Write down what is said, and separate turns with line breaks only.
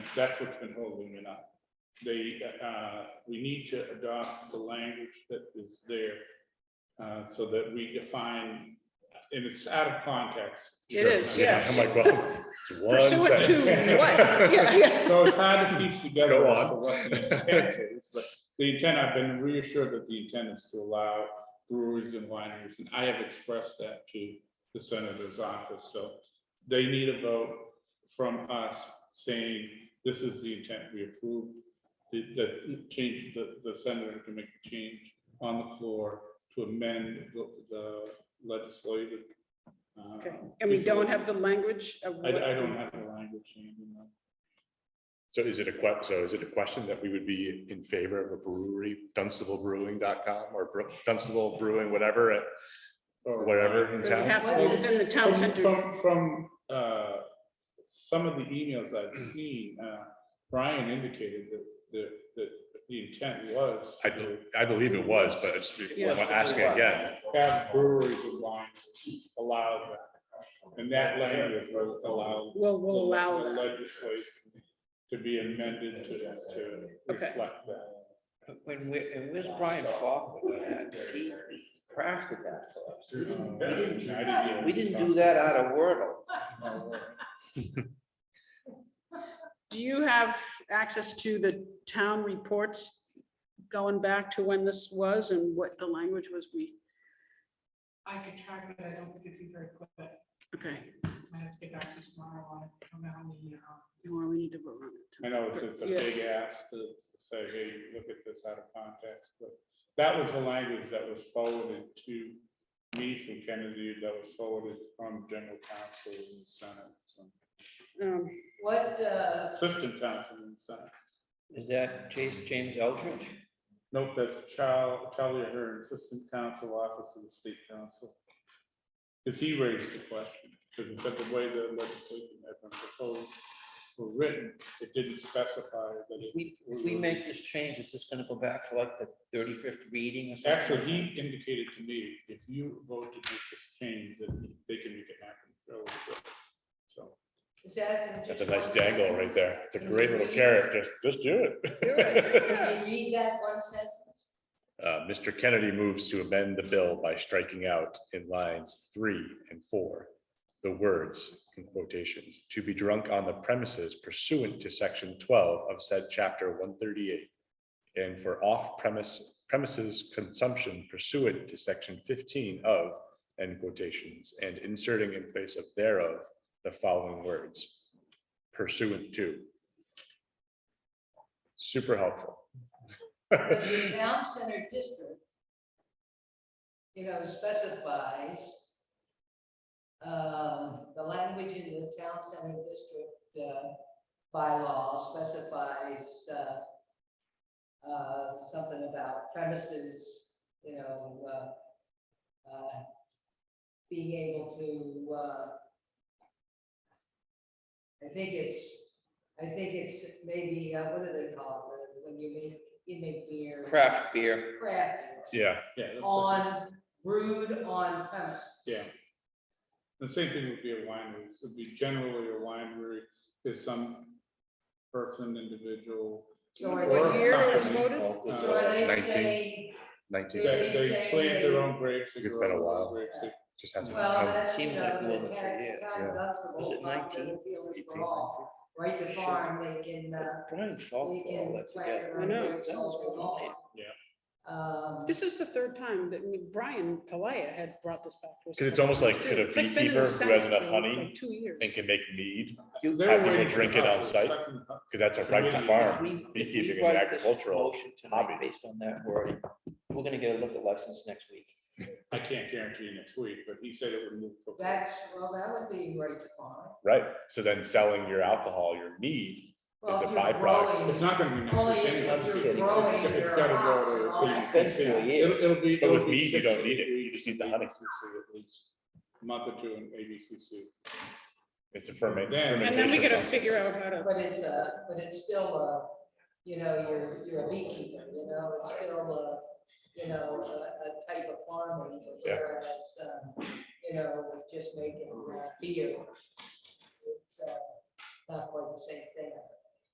That's what's been holding it up. They, uh, we need to adopt the language that is there uh, so that we define, and it's out of context.
It is,
Yeah.
yes.
I'm like, well, it's one
Pursuant to
sentence.
what? Yeah, yeah.
So it's hard to piece together
Go
as
on.
to what the intent is, but the intent, I've been reassured that the intent is to allow breweries and wineries, and I have expressed that to the senator's office, so they need a vote from us saying, this is the intent we approve, the, the change, the, the senator can make the change on the floor to amend the, the legislative. uh,
Okay. And we don't have the language of.
I,
what-
I don't have the language handy enough.
So is it a que, so is it a question that we would be in favor of a brewery, dunstable.brewing.com or Bru- Dunstable Brewing, whatever, at
or-
whatever in
It would
town?
uh, have to be within the town
From-
center.
From, from, uh, some of the emails I've seen, uh, Brian indicated that, that, that the intent was
I,
to
I believe it was, but it's,
Yes.
I'm asking again.
have breweries and wines allowed that. And that language will allow.
Will, will allow
the
that.
Legislation to be amended to, to
Okay.
reflect that.
When we, and where's Brian Falk with that? 'Cause he crafted that for us. We
Um,
didn't- we didn't- We didn't do that out of Wordle.
Do you have access to the town reports going back to when this was and what the language was we,
I could try, but I don't think it'd be very quick.
okay,
I have to get back to you tomorrow on, it. I don't know how many, uh,
or we need to vote on
I
it.
know it's, it's a
Yeah.
big ask to to say, hey, look at this out of context, but that was the language that was forwarded to me from Kennedy, that was forwarded from general counsel in the Senate, so,
Um,
What, uh,
assistant counsel in the Senate.
Is that Chase James Eldridge?
Nope, that's Charlie, Charlie Ahern, Assistant Counsel Office of the State Council. Because he raised the question, because the way the legislation had been proposed or written, it didn't specify that it
If we, if we make this change, is this gonna go back for like the thirty-fifth reading or something?
Actually, he indicated to me, if you vote to make this change, that they can make it happen. fairly quick. So,
is that?
That's a nice dangle right there. It's a great little
Mm-hmm.
carrot. Just, just do it.
Can you read that one sentence?
Uh, Mr. Kennedy moves to amend the bill by striking out in lines three and four, the words in quotations, to be drunk on the premises pursuant to section twelve of said chapter one thirty-eight. And for off-premise premises consumption pursuant to section fifteen of, end quotations, and inserting in place of thereof the following words, pursuant to. Super helpful.
Because the town center district, you know, specifies um, the language in the town center district uh, bylaw specifies uh, uh, something about premises, you know, uh, uh, being able to, uh, I think it's, I think it's maybe, uh, what do they call it, when you make, you make beer?
Craft beer.
craft beer
Yeah,
yeah. that's the-
on brewed on premises.
Yeah. The same thing would be a winery. It would be generally a winery is some person, individual.
So are
or
they- What year
it was
company,
voted?
uh,
So are they
19.
saying,
nineteen.
That
They
they
say
plant their
they-
own grapes. they
It's
grow
been a
their own
while.
grapes, they-
just hasn't.
well,
come.
that's, you
seems like more
know,
than
the
three
town,
years,
town
Was
Dunstable,
it
farm, they
19?
feel it's
18,
for all. Right to
Sure.
farm, they can, uh,
Brian
they
Falk, put all
can
that
plant their
I
own
together.
know.
grapes all they want. Um,
This is the third time that Brian Palaya had brought this back. to us.
Because it's almost like, could a
It's been in the
beekeeper who has
Senate
enough
for-
honey
for Two years.
and can make mead,
You-
They're
Have people
waiting for
drink it
us,
on
it's
site?
like in-
because that's a right to
If
If
farm.
we- if we
Beekeeping is an
write this
agricultural
motion tonight
hobby.
Based on that word, we're gonna get a liquor license next week.
I can't guarantee next week, but he said it would move. quickly.
that's, well, that would be right to farm.
Right, so then selling your alcohol, your mead,
Well,
It's a
if you're
byproduct.
growing-
It's not gonna be
Only
next week.
if
anyway.
you're
It's-
growing
it's- it's
your
gotta grow
crops
to
and
at
all that.
least
That's
six-
the year.
it'll- it'll be-
But
it'll
with
be
mead, you
six
don't
to
need it.
eight
You
weeks,
just need the
maybe
honey.
six to eight weeks, Month or two in ABCC.
it's a ferment.
Then-
And then we
fermentation
gotta
process.
figure out how to,
But it's a, but it's still a, you know, you're, you're a beekeeper, you know, it's still a, you know, a, a type of farming.
Yeah.
Whereas, um, you know, with just making uh, beer. It's, uh, not quite the same thing.